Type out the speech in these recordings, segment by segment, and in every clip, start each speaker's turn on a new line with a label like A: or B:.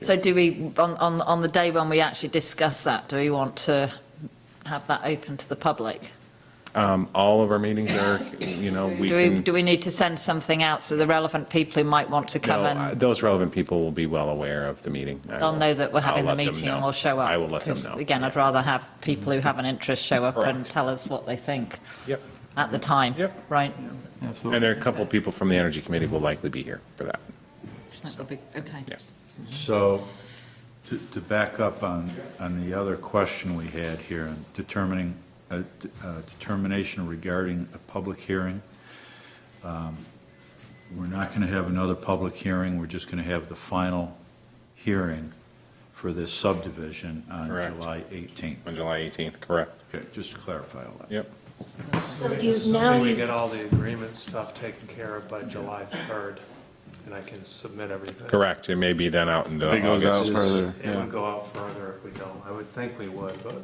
A: So do we, on, on, on the day when we actually discuss that, do we want to have that open to the public?
B: Um, all of our meetings are, you know, we
A: Do we,
B: can.
A: do we need to send something out so the relevant people who might want to come
B: No, I-
A: and,
B: uh, Those relevant people will be well aware of the meeting. I
A: they'll
B: will-
A: know that we're
B: I'll
A: having the
B: let them
A: meeting and
B: know.
A: will show up?
B: I will let them
A: 'Cause
B: know.
A: Again, I'd rather have people who have an interest show up and
B: Correct.
A: tell us what they think
B: Yep.
A: at the time.
B: Yep.
A: Right?
B: And there are a couple of people from the Energy Committee will likely be here for that.
A: That would be, okay.
B: Yeah.
C: So, to, to back up on, on the other question we had here, on determining, uh, d- uh, determination regarding a public hearing, um, we're not going to have another public hearing, we're just going to have the final hearing for this subdivision on
B: Correct.
C: July 18th.
B: On July 18th, correct.
C: Okay, just to clarify all that.
B: Yep.
D: So
E: Maybe
D: you, now
E: We
D: you,
E: get all the agreement stuff taken care of by July 3rd, and I can submit everything.
B: Correct. It may be then out in the
F: It goes out
B: August.
F: further,
E: It
F: yeah.
E: would go out further if we don't. I would think we would, but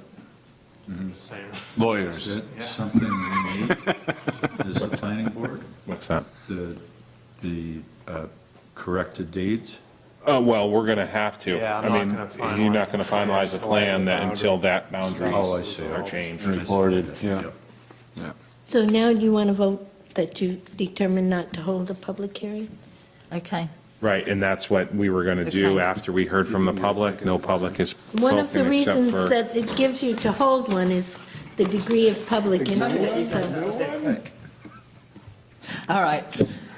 E: I'm just saying.
C: Is
F: Lawyers.
C: that something we need as a planning board?
B: What's that?
C: The, the uh, corrected deeds?
B: Oh, well, we're going to have to.
E: Yeah, I'm
B: I
E: not
B: mean,
E: gonna
B: You're
E: finalize
B: not going
E: the
B: to
E: plan
B: finalize the
E: until I
B: plan that
E: know
B: until that boundary
C: Oh, I see.
B: are changed.
F: Recorded, yeah.
C: Yep.
D: so now you want to vote that you determined not to hold a public hearing?
A: Okay.
B: Right, and that's what we were going to do
A: Okay.
B: after we heard from the public. No public is
D: One of the
B: spoken except
D: reasons
B: for-
D: that it gives you to hold one is the degree of public interest, so
A: All right.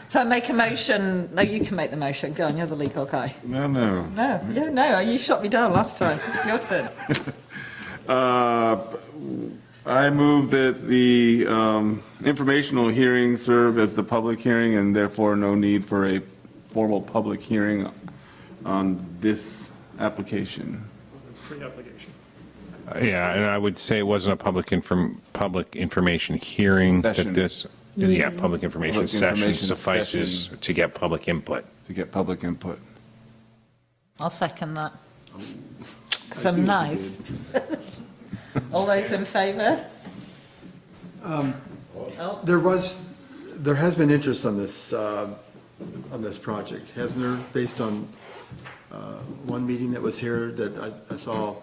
A: So I make a motion, no, you can make the motion. Go on, you're the legal guy.
F: No, no.
A: No, yeah, no, you shot me down last time. It's your turn.
F: Uh, I move that the um, informational hearing serve as the public hearing and therefore no need for a formal public hearing on this application.
E: Pre-application.
B: Yeah, and I would say it wasn't a public inform, public information hearing, that
F: Session.
B: this, yeah, public information
F: Public
B: session
F: information
B: suffices
F: session.
B: to get public input.
F: To get public input.
A: I'll second that. Because I'm nice. All those in favour? Oh,
G: There was, there has been interest on this, uh, on this project, hasn't there, based on uh, one meeting that was here that I- I saw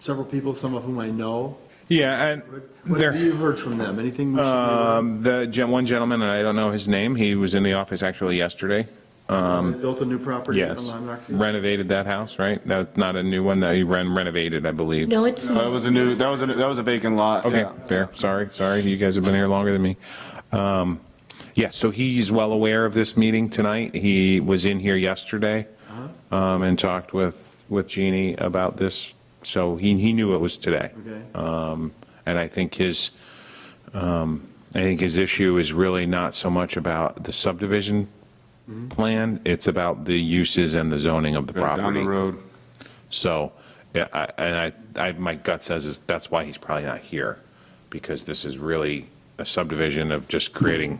G: several people, some of whom I know.
B: Yeah, and
G: What what
B: there.
G: have you heard from them? Anything we should be aware of?
B: Um, the gen, one gentleman, and I don't know his name, he was in the office actually yesterday.
G: They Built a new property on
B: um, Yes.
G: Lime Rock?
B: Renovated that house, right? That's not a new one that he ren- renovated, I believe.
D: no, it's
F: That
D: not.
F: was a new, that was, a that was a vacant lot.
B: Okay,
F: yeah.
B: fair. Sorry, sorry. You guys have been here longer than me. Um, yeah, so he's well aware of this meeting tonight. He was in here yesterday
F: Uh-huh.
B: um, and talked with, with Jeannie about this. So he, he knew it was today.
G: Okay.
B: Um, and I think his, um, I think his issue is really not so much about the subdivision plan. It's about the uses and the zoning of the property.
F: Mm-hmm. Down the road.
B: So, yeah, I- and I, I, my gut says is that's why he's probably not here, because this is really a subdivision of just creating,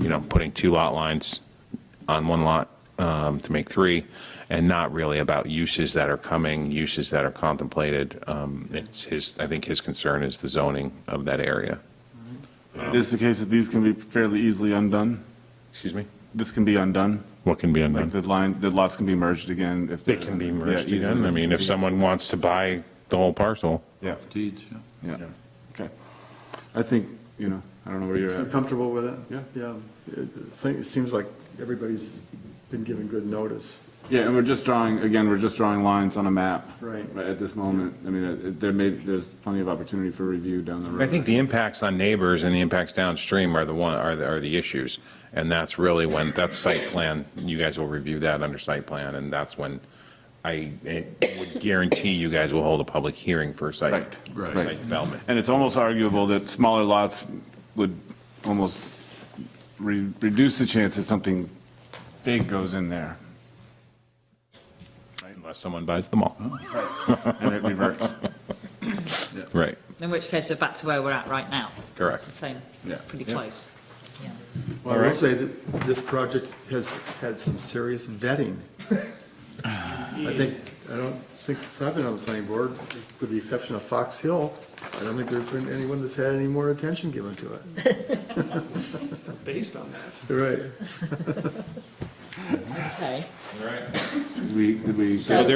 B: you know, putting two lot lines on one lot um, to make three, and not really about uses that are coming, uses that are contemplated. Um, It's his, I think his concern is the zoning of that area.
F: It is the case that these can be fairly easily undone.
B: Excuse me?
F: This can be undone.
B: What can be
F: Like
B: undone?
F: the line, the lots can be merged again if.
B: They
F: they're-
B: can be
F: yeah,
B: merged
F: easily.
B: again. I mean, if someone wants to buy the whole parcel.
F: Yeah,
C: Deeds, yeah.
F: yeah, okay. I think, you know, I don't know where you're
G: You're
F: at.
G: comfortable with it?
F: Yeah.
G: Yeah. It- It se- it seems like everybody's been given good notice.
F: Yeah, and we're just drawing, again, we're just drawing lines on a map.
G: Right.
F: At this moment, I mean, it- there may, there's plenty of opportunity for review down the road.
B: I think the impacts on neighbors and the impacts downstream are the one, are the, are the issues. And that's really when, that's site plan, you guys will review that under site plan, and that's when I I would guarantee you guys will hold a public hearing for site,
F: Right,
C: right.
B: site development.
F: And it's almost arguable that smaller lots would almost re- reduce the chance that something big goes in there
B: Unless someone buys them all.
F: and it reverts.
B: Right,
A: In which case, we're back to where we're at right now. It's
B: correct.
A: the same,
F: Yeah.
A: pretty
F: Yeah.
A: close.
G: Well, I will say that this project has had some serious vetting. I think, I don't think it's happened on the planning board, with the exception of Fox Hill. I don't think there's been anyone that's had any more attention given to it.
E: Based on that,
G: Right.
F: okay.
A: We, did we?
F: So-